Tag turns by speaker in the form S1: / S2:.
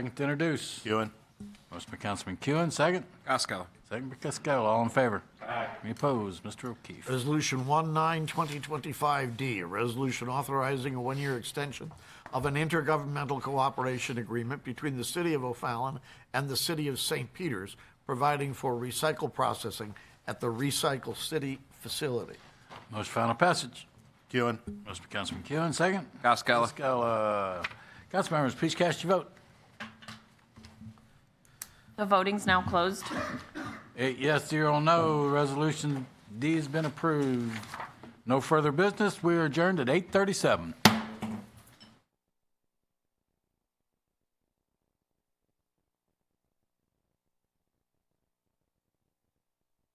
S1: Second to introduce.
S2: Ewan.
S1: Motion by Councilman Kuhn, second.
S3: Costello.
S1: Second by Cascola, all in favor? Aye. Any opposed? Mr. O'Keefe.
S2: Resolution 19-2025D, a resolution authorizing a one-year extension of an intergovernmental cooperation agreement between the City of O'Fallon and the City of St. Peters, providing for recycle processing at the Recycle City facility.
S1: Motion for final passage.
S3: Kewen.
S1: Motion by Councilman Kuhn, second.
S3: Costello.
S1: Cascola. Council members, please cast your vote.
S4: The voting's now closed.
S1: Eight yes, zero no. Resolution D has been approved. No further business. We are adjourned at 8:37.